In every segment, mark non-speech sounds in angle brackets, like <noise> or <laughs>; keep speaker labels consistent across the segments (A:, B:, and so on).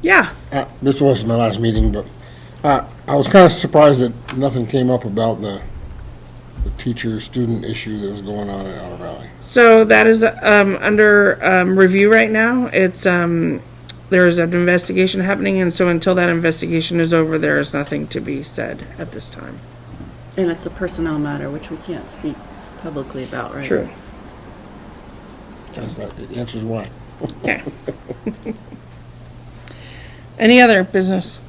A: Yeah,
B: Uh, This wasn't my last meeting, but uh, I was kind of surprised that nothing came up about the the teacher-student issue that was going on in Outer Valley.
A: so that is um, under um, review right now. It's, um, there's an investigation happening, and so until that investigation is over, there is nothing to be said at this time.
C: And it's a personnel matter, which we can't speak publicly about, right?
B: That's- That it answers why.
A: Yeah. <laughs> Any other business?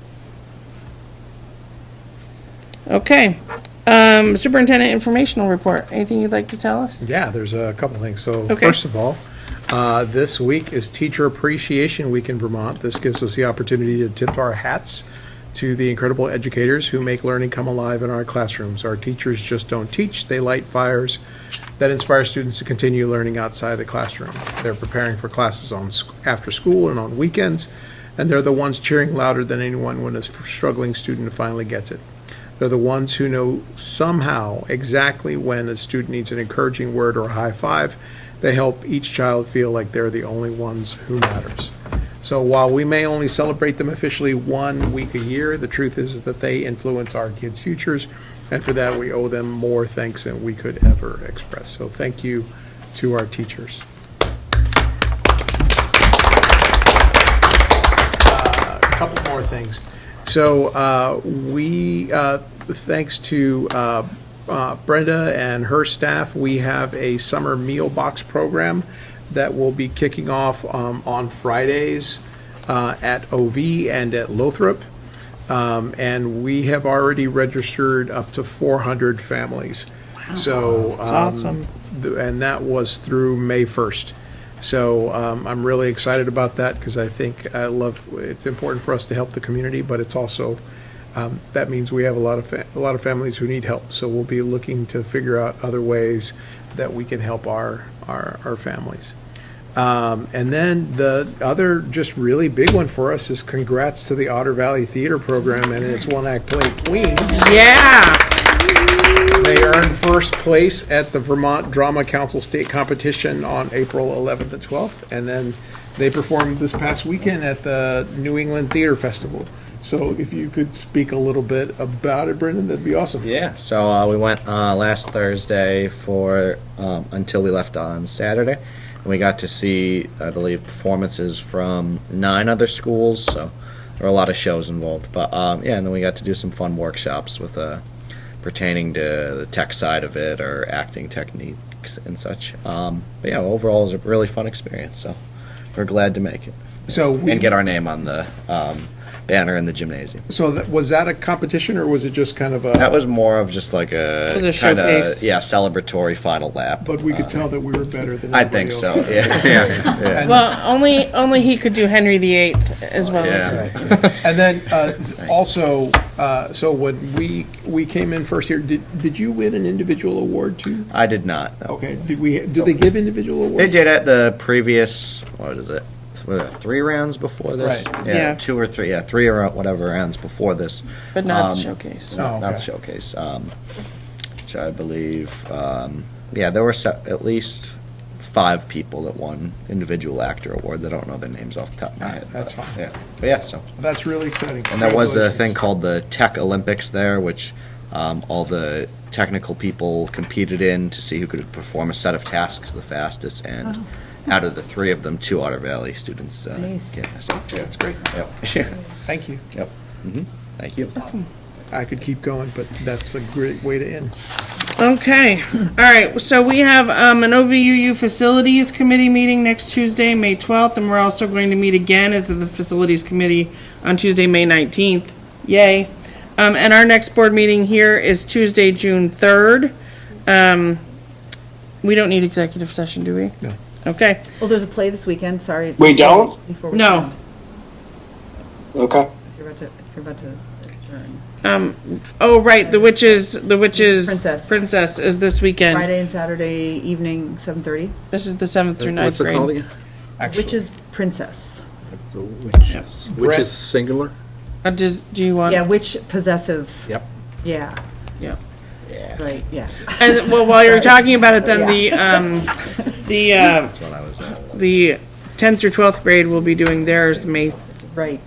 A: Okay. Um, Superintendent informational report. Anything you'd like to tell us?
D: Yeah, there's a couple things. So
A: Okay.
D: first of all, uh, this week is Teacher Appreciation Week in Vermont. This gives us the opportunity to tip our hats to the incredible educators who make learning come alive in our classrooms. Our teachers just don't teach, they light fires that inspire students to continue learning outside the classroom. They're preparing for classes on, sc- after school and on weekends, and they're the ones cheering louder than anyone when a s- struggling student finally gets it. They're the ones who know somehow exactly when a student needs an encouraging word or a high five. They help each child feel like they're the only ones who matters. So while we may only celebrate them officially one week a year, the truth is that they influence our kids' futures, and for that, we owe them more thanks than we could ever express. So thank you to our teachers. couple more things. So uh, we, uh, thanks to uh, uh, Brenda and her staff, we have a summer meal box program that will be kicking off um, on Fridays uh, at OV and at Lothrop. Um, And we have already registered up to 400 families. So. That's
A: awesome.
D: Um, And that was through May 1st. So um, I'm really excited about that because I think I love, it's important for us to help the community, but it's also, um, that means we have a lot of, fa- a lot of families who need help. So we'll be looking to figure out other ways that we can help our, our, our families. Um, And then the other just really big one for us is congrats to the Otter Valley Theater Program and its one-act play Queens.
A: Yeah.
D: They earned first place at the Vermont Drama Council State Competition on April 11th and 12th, and then they performed this past weekend at the New England Theater Festival. So if you could speak a little bit about it, Brendan, that'd be awesome.
E: Yeah, so uh, we went uh, last Thursday for um, until we left on Saturday, and we got to see, I believe, performances from nine other schools. So there were a lot of shows involved, but um, yeah, and then we got to do some fun workshops with uh, pertaining to the tech side of it or acting techniques and such. Um, but yeah, overall, it was a really fun experience. So we're glad to make it
D: So, we-
E: and get our name on the um, banner in the gymnasium.
D: so that- was that a competition, or was it just kind of a,
E: That was more of just like a,
A: It was a showcase.
E: yeah, celebratory final lap.
D: but we could tell that we were better than
E: I think
D: everybody else?
E: so. Yeah, yeah, yeah.
A: Well, only only he could do Henry VIII as well as
E: Yeah.
D: And then uh, s- also, uh, so when we, we came in first here, did, did you win an individual award too?
E: I did not. no.
D: Okay, did we, did they give individual awards?
E: They did at the previous. What is it? Was it Three rounds before this.
D: Right.
E: Yeah,
A: Yeah.
E: Two or three. Yeah, three or whatever rounds before this.
A: but not
E: Um,
A: the showcase.
D: Oh,
E: Not the
D: okay.
E: showcase. Um, which I believe. Um, yeah, there were se- at least five people that won individual actor award. They don't know their names off the top of my head.
D: That's
E: but,
D: fine.
E: Yeah, but yeah. So
D: That's really exciting.
E: And there was a thing
D: Congratulations.
E: called the Tech Olympics there, which um, all the technical people competed in to see who could perform a set of tasks the fastest. And out of the three of them, two Otter Valley students. Uh, get this.
D: Yeah, it's great.
E: Yep. <laughs>
D: Thank you.
E: yep. hmm Thank you.
D: I could keep going, but that's a great way to end.
A: Okay, all right, so we have um, an OVUU Facilities Committee meeting next Tuesday, May 12th, and we're also going to meet again as the Facilities Committee on Tuesday, May 19th. Yay. Um, And our next board meeting here is Tuesday, June 3rd. Um, We don't need executive session, do we?
D: No.
A: Okay,
F: Well, there's a play this weekend, sorry.
G: We don't?
F: Before we-
A: no,
G: Okay.
F: If you're about to, if you're about to adjourn.
A: oh, right, the witches, the witches.
F: Princess.
A: Princess is this weekend.
F: Friday and Saturday evening, 7:30,
A: This is the 7th through ninth grade.
F: which is Princess.
H: Which is singular?
A: Uh, does- Do you want?
F: Yeah, which possessive.
H: Yep.
F: Yeah,
A: Yeah.
F: right, yeah.
A: And, well, while you're talking about it, then the, um, the, uh,
E: That's what I was. Uh,
A: the tenth through twelfth grade will be doing theirs May
F: Right.